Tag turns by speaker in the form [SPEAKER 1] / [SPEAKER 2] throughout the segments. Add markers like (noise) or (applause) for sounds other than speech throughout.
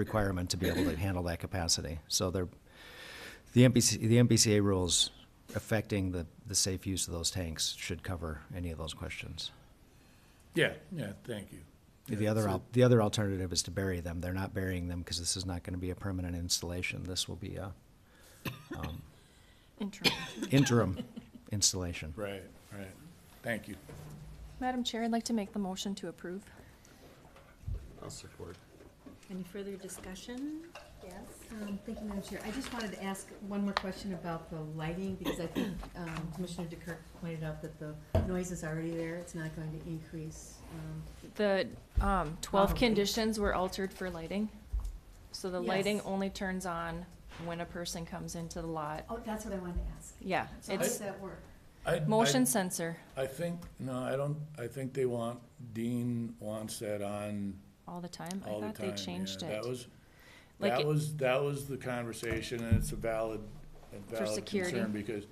[SPEAKER 1] requirement to be able to handle that capacity. So they're, the MBC, the MBCA rules affecting the, the safe use of those tanks should cover any of those questions.
[SPEAKER 2] Yeah, yeah, thank you.
[SPEAKER 1] The other, al- the other alternative is to bury them. They're not burying them because this is not going to be a permanent installation. This will be a
[SPEAKER 3] Interim.
[SPEAKER 1] interim installation.
[SPEAKER 2] Right, right. Thank you.
[SPEAKER 3] Madam Chair, I'd like to make the motion to approve.
[SPEAKER 4] I'll support.
[SPEAKER 5] Any further discussion? Yes.
[SPEAKER 6] Um, Thank you, Madam Chair. I just wanted to ask one more question about the lighting, because I think um, Commissioner DeKirk pointed out that the noise is already there. It's not going to increase. um,
[SPEAKER 3] The um, 12
[SPEAKER 6] Oh.
[SPEAKER 3] conditions were altered for lighting. So the lighting
[SPEAKER 6] Yes.
[SPEAKER 3] only turns on when a person comes into the lot.
[SPEAKER 6] Oh, that's what I wanted to ask.
[SPEAKER 3] Yeah,
[SPEAKER 6] So how does
[SPEAKER 3] it's
[SPEAKER 6] that work?
[SPEAKER 2] I- I-
[SPEAKER 3] motion sensor
[SPEAKER 2] I think, no, I don't, I think they want, Dean wants that on
[SPEAKER 3] all the time. I
[SPEAKER 2] all the
[SPEAKER 3] thought they
[SPEAKER 2] time.
[SPEAKER 3] changed
[SPEAKER 2] yeah.
[SPEAKER 3] it.
[SPEAKER 2] That was,
[SPEAKER 3] Like
[SPEAKER 2] that
[SPEAKER 3] it-
[SPEAKER 2] was, that was the conversation, and it's a valid, a valid
[SPEAKER 3] security.
[SPEAKER 2] concern, because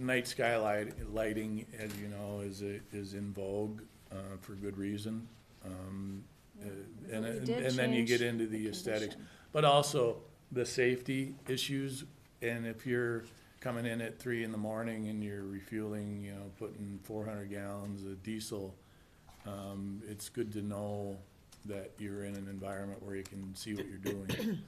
[SPEAKER 2] night skylight, lighting, as you know, is, a- is in vogue, uh, for good reason. Um, uh, And,
[SPEAKER 3] But we
[SPEAKER 2] and
[SPEAKER 3] did
[SPEAKER 2] and then you get
[SPEAKER 3] change
[SPEAKER 2] into
[SPEAKER 3] the
[SPEAKER 2] the aesthetics,
[SPEAKER 3] condition.
[SPEAKER 2] but also the safety issues, and if you're coming in at three in the morning and you're refueling, you know, putting four hundred gallons of diesel, um, it's good to know that you're in an environment where you can see what you're
[SPEAKER 3] (coughs)
[SPEAKER 2] doing.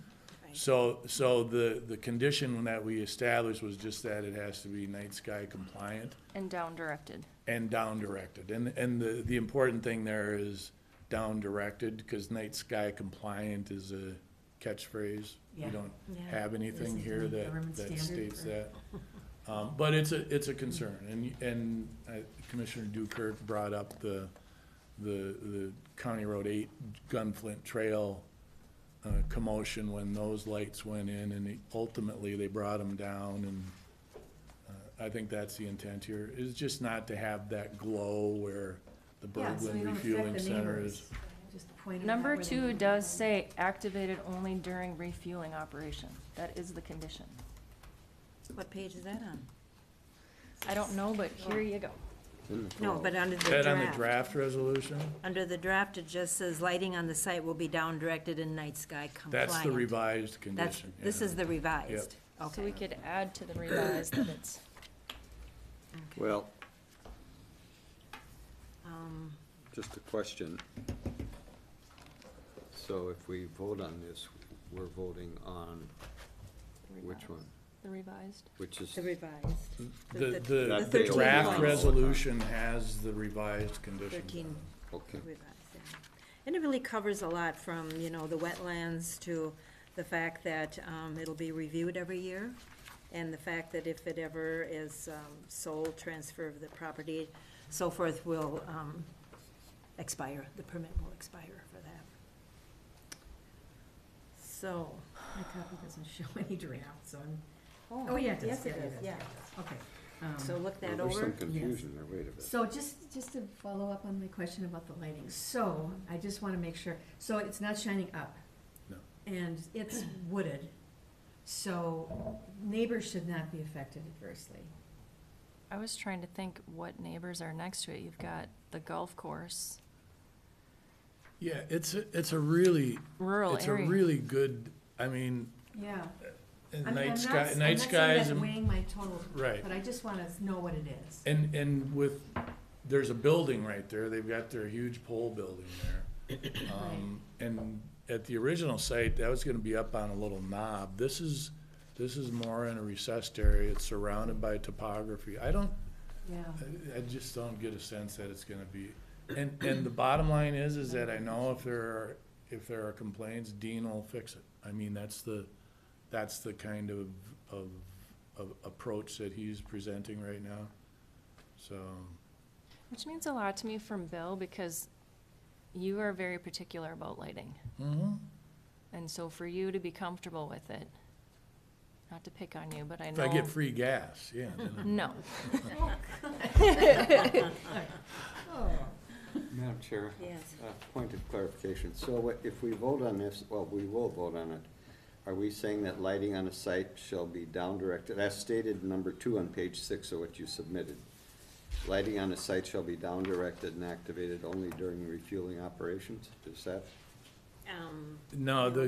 [SPEAKER 2] So, so the, the condition that we established was just that it has to be night sky compliant
[SPEAKER 3] And down directed.
[SPEAKER 2] and down directed. And, and the, the important thing there is down directed, because night sky compliant is a catchphrase. We
[SPEAKER 6] Yeah.
[SPEAKER 2] don't
[SPEAKER 6] Yeah.
[SPEAKER 2] have anything
[SPEAKER 6] Isn't
[SPEAKER 2] here
[SPEAKER 6] the
[SPEAKER 2] that,
[SPEAKER 6] government
[SPEAKER 2] that
[SPEAKER 6] standard
[SPEAKER 2] states
[SPEAKER 6] for-
[SPEAKER 2] that. (laughs) Um, but it's a, it's a concern, and, and uh, Commissioner Dukert brought up the, the, the County Road Eight Gunflint Trail uh, commotion when those lights went in, and ultimately they brought them down, and uh, I think that's the intent here, is just not to have that glow where the
[SPEAKER 6] Yeah, so we
[SPEAKER 2] Berglund
[SPEAKER 6] don't affect
[SPEAKER 2] Refueling
[SPEAKER 6] the
[SPEAKER 2] Center
[SPEAKER 6] neighbors.
[SPEAKER 2] is.
[SPEAKER 6] Just point it out
[SPEAKER 3] Number
[SPEAKER 6] where the
[SPEAKER 3] two
[SPEAKER 6] neighbors
[SPEAKER 3] does
[SPEAKER 6] are.
[SPEAKER 3] say activated only during refueling operation. That is the condition.
[SPEAKER 5] What page is that on?
[SPEAKER 3] I don't know, but here you go.
[SPEAKER 5] No, but under
[SPEAKER 2] Is that on the
[SPEAKER 5] the draft.
[SPEAKER 2] draft resolution?
[SPEAKER 5] Under the draft, it just says lighting on the site will be down directed and night sky compliant.
[SPEAKER 2] That's the revised
[SPEAKER 5] That's-
[SPEAKER 2] condition.
[SPEAKER 5] This
[SPEAKER 2] yeah.
[SPEAKER 5] is the revised.
[SPEAKER 3] So we
[SPEAKER 5] Okay.
[SPEAKER 3] could add to the revised that it's
[SPEAKER 4] Well,
[SPEAKER 5] Um,
[SPEAKER 4] just a question. So if we vote on this, we're voting on which one?
[SPEAKER 3] the revised.
[SPEAKER 4] Which is,
[SPEAKER 5] The revised.
[SPEAKER 2] The,
[SPEAKER 4] That
[SPEAKER 2] the, the
[SPEAKER 4] they all
[SPEAKER 2] draft
[SPEAKER 4] want.
[SPEAKER 2] resolution has the revised condition.
[SPEAKER 5] Thirteen
[SPEAKER 4] okay,
[SPEAKER 5] revised, yeah. And it really covers a lot from, you know, the wetlands to the fact that um, it'll be reviewed every year, and the fact that if it ever is um, sold, transfer of the property, so forth, will um, expire, the permit will expire for that. So,
[SPEAKER 6] My copy doesn't show (laughs) any draft, so I'm,
[SPEAKER 5] oh,
[SPEAKER 6] oh, yeah, it does.
[SPEAKER 5] yes, it
[SPEAKER 6] Yeah,
[SPEAKER 5] is, yeah.
[SPEAKER 6] okay. Um,
[SPEAKER 5] So look
[SPEAKER 4] Well,
[SPEAKER 5] that
[SPEAKER 4] there's some
[SPEAKER 5] over.
[SPEAKER 4] confusion there, wait a minute.
[SPEAKER 6] So just, just to follow up on my question about the lighting, so I just want to make sure, so it's not shining up?
[SPEAKER 2] No.
[SPEAKER 6] And it's wooded, so neighbors should not be affected adversely.
[SPEAKER 3] I was trying to think what neighbors are next to it. You've got the golf course,
[SPEAKER 2] Yeah, it's, a- it's a really,
[SPEAKER 3] rural
[SPEAKER 2] it's a
[SPEAKER 3] area.
[SPEAKER 2] really good, I mean,
[SPEAKER 6] Yeah. I mean, I'm
[SPEAKER 2] night
[SPEAKER 6] not-
[SPEAKER 2] sky,
[SPEAKER 6] I'm
[SPEAKER 2] night
[SPEAKER 6] not saying
[SPEAKER 2] sky is,
[SPEAKER 6] that
[SPEAKER 2] im-
[SPEAKER 6] Weighing my total,
[SPEAKER 2] right.
[SPEAKER 6] but I just want to know what it is.
[SPEAKER 2] And, and with, there's a building right there, they've got their huge pole building there. Um, And at the original site, that was gonna be up on a little knob. This is, this is more in a recessed area, it's surrounded by topography. I don't,
[SPEAKER 6] Yeah.
[SPEAKER 2] I- I just don't get a sense that it's gonna be, and, and the bottom line is, is that I know if there are, if there are complaints, Dean will fix it. I mean, that's the, that's the kind of, of, of approach that he's presenting right now, so.
[SPEAKER 3] Which means a lot to me from Bill because you are very particular about lighting.
[SPEAKER 2] mhm.
[SPEAKER 3] And so for you to be comfortable with it, not to pick on you, but I
[SPEAKER 2] If
[SPEAKER 3] know.
[SPEAKER 2] I get free gas, yeah. then I'm-
[SPEAKER 3] No,
[SPEAKER 4] Madam Chair?
[SPEAKER 5] Yes.
[SPEAKER 4] A point of clarification. So what- if we vote on this, well, we will vote on it. Are we saying that lighting on a site shall be down directed, as stated in number two on page six of what you submitted? Lighting on a site shall be down directed and activated only during refueling operations? Is that?
[SPEAKER 5] Um,
[SPEAKER 2] No, the,